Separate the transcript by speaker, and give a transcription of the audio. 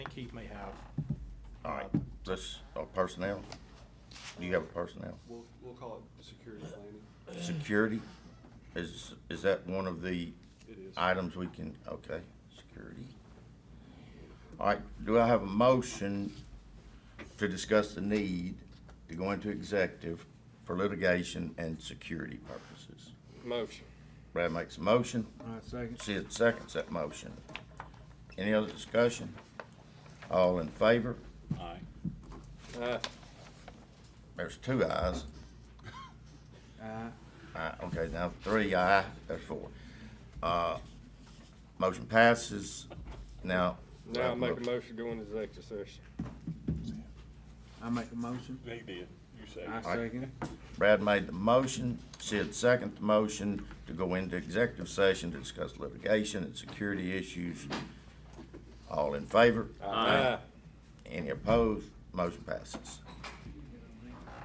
Speaker 1: chief may have.
Speaker 2: All right, let's, uh, personnel. You have a personnel.
Speaker 3: We'll, we'll call it security planning.
Speaker 2: Security, is, is that one of the
Speaker 3: It is.
Speaker 2: items we can, okay, security. All right, do I have a motion to discuss the need to go into executive for litigation and security purposes?
Speaker 4: Motion.
Speaker 2: Brad makes a motion,
Speaker 1: All right, second.
Speaker 2: Sid seconds that motion. Any other discussion? All in favor?
Speaker 4: Aye. Aye.
Speaker 2: There's two ayes.
Speaker 1: Uh,
Speaker 2: Aye, okay, now three aye, there's four. Uh, motion passes. Now.
Speaker 4: Now I make a motion to go into executive session.
Speaker 1: I make a motion.
Speaker 4: They did. You say.
Speaker 1: I
Speaker 2: Aye.
Speaker 1: second it.
Speaker 2: Brad made the motion, Sid seconded the motion to go into executive session to discuss litigation and security issues. All in favor?
Speaker 4: Aye.
Speaker 2: Any opposed? Motion passes.